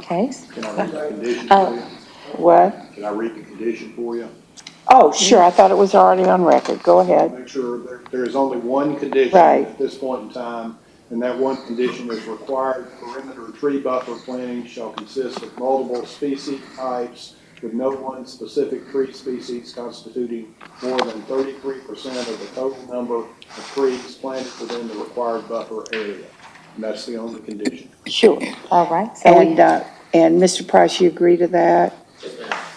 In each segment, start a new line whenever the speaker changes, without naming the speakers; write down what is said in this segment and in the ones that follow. Okay.
Can I read the condition for
Oh.
you?
What?
Can I read the condition for you?
Oh, sure, I thought it was already on record. Go ahead.
Make sure there, there is only one condition
Right.
at this point in time, and that one condition is required perimeter tree buffer planting shall consist of multiple species types with no one specific tree species constituting more than thirty-three percent of the total number of trees planted within the required buffer area. And that's the only condition.
Sure.
All right, so we,
And, uh, and Mr. Price, you agree to that?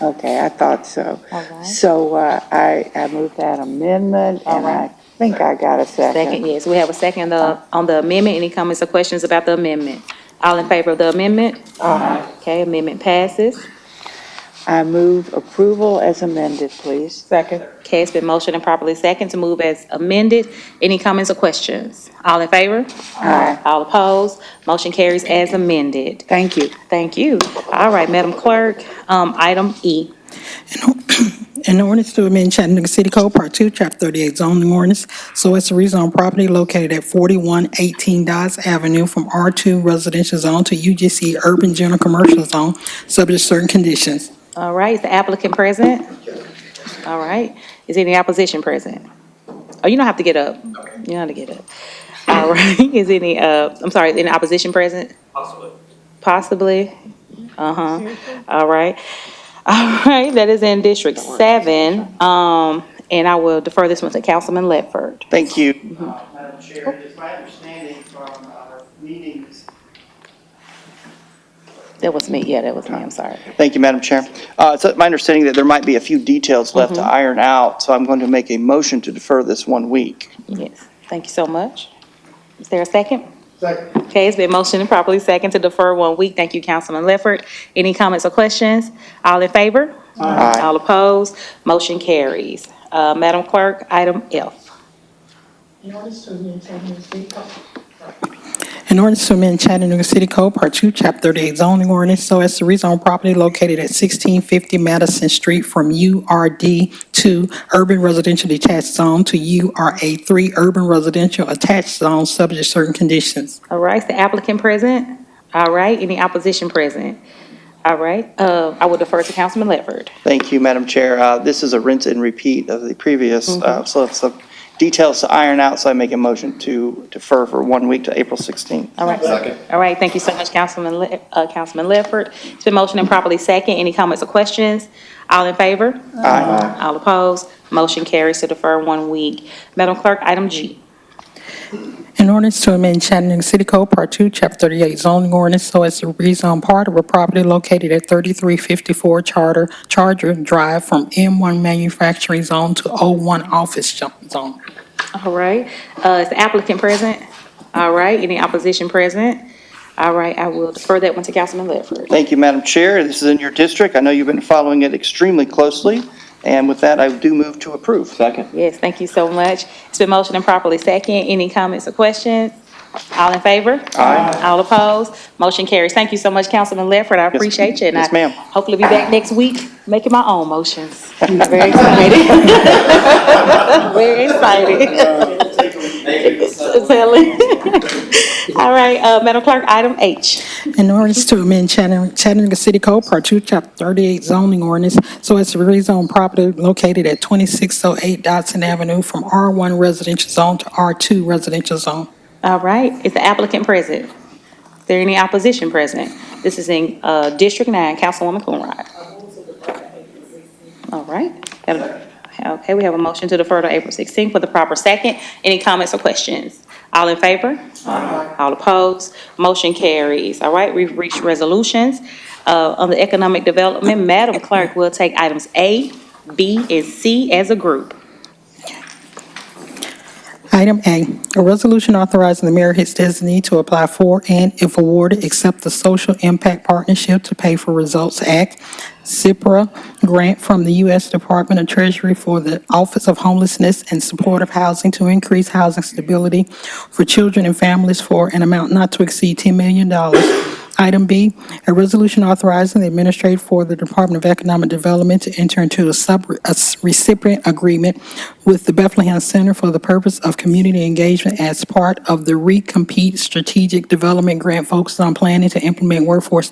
Okay, I thought so.
All right.
So, uh, I, I moved that amendment and I
right.
think I got a second.
second, yes, we have a second uh, on the amendment. Any comments or questions about the amendment? All in favor of the amendment? Okay, amendment passes.
I move approval as amended, please.
Second.
Okay, it's been motioned and properly second to move as amended. Any comments or questions? All in favor?
Aye.
All opposed? Motion carries as amended.
Thank you.
Thank you. All right, Madam Clerk, um, item E.
An ordinance to amend Chattanooga City Code, Part Two, Chapter Thirty-eight zoning ordinance, so as to rezone property located at forty-one eighteen Dodge Avenue from R two residential zone to UGC urban general commercial zone, subject to certain conditions.
All right, is the applicant present? All right, is any opposition present? Oh, you don't have to get up. You don't have to get up. All right, is any, uh, I'm sorry, is any opposition present? Possibly. Possibly? Uh-huh, all right. All right, that is in District Seven, um, and I will defer this one to Councilman Ledford.
Thank you.
Uh, Madam Chair, it is my understanding from our meetings
That was me, yeah, that was me, I'm sorry.
Thank you, Madam Chair. Uh, It's my understanding that there might be a few details left to iron out, so I'm going to make a motion to defer this one week.
Yes, thank you so much. Is there a second? Second. Okay, it's been motioned and properly second to defer one week. Thank you, Councilman Lefford. Any comments or questions? All in favor?
Aye.
All opposed? Motion carries. Uh, Madam Clerk, item F.
An ordinance to amend Chattanooga City Code, Part Two, Chapter Thirty-eight zoning ordinance, so as to rezone property located at sixteen fifty Madison Street from URD two urban residential detached zone to URA three urban residential attached zone, subject to certain conditions.
All right, is the applicant present? All right, any opposition present? All right, uh, I will defer to Councilman Lefford.
Thank you, Madam Chair. Uh, This is a rinse and repeat of the previous, uh, so it's some details to iron out, so I make a motion to defer for one week to April 16th.
All right. All right, thank you so much, Councilman, Le- uh, Councilman Ledford. It's been motioned and properly second. Any comments or questions? All in favor?
Aye.
All opposed? Motion carries to defer one week. Madam Clerk, item G.
An ordinance to amend Chattanooga City Code, Part Two, Chapter Thirty-eight zoning ordinance, so as to rezone part of a property located at thirty-three fifty-four Charter, Charger Drive from M one manufacturing zone to O one office jo- zone.
All right, uh, is the applicant present? All right, any opposition present? All right, I will defer that one to Councilman Ledford.
Thank you, Madam Chair. This is in your district. I know you've been following it extremely closely, and with that, I do move to approve.
Yes, thank you so much. It's been motioned and properly second. Any comments or questions? All in favor? Aye. All opposed? Motion carries. Thank you so much, Councilman Ledford. I appreciate you. and
Yes,
I
ma'am.
Hopefully be back next week making my own motions. I'm Very excited. Very excited. Silly. All right, uh, Madam Clerk, item H.
An ordinance to amend Chattanooga Chattanooga City Code, Part Two, Chapter Thirty-eight zoning ordinance, so as to rezone property located at twenty-six oh eight Dodson Avenue from R one residential zone to R two residential zone.
All right, is the applicant present? Is there any opposition present? This is in uh, District 9, Councilwoman Coonrod. All right. Okay, we have a motion to defer to April 16th for the proper second. Any comments or questions? All in favor? All opposed? Motion carries. All right, we've reached resolutions. Uh, On the economic development, Madam Clerk will take items A, B, and C as a group.
Item A, a resolution authorizing the mayor and his designee to apply for and if awarded, accept the Social Impact Partnership to Pay for Results Act, CIPRA grant from the U.S. Department of Treasury for the Office of Homelessness and Supportive Housing to increase housing stability for children and families for an amount not to exceed $10 million. Item B, a resolution authorizing the administrator for the Department of Economic Development to enter into a sub, a s- recipient agreement with the Bethlehem Center for the purpose of community engagement as part of the Recompete Strategic Development Grant focused on planning to implement workforce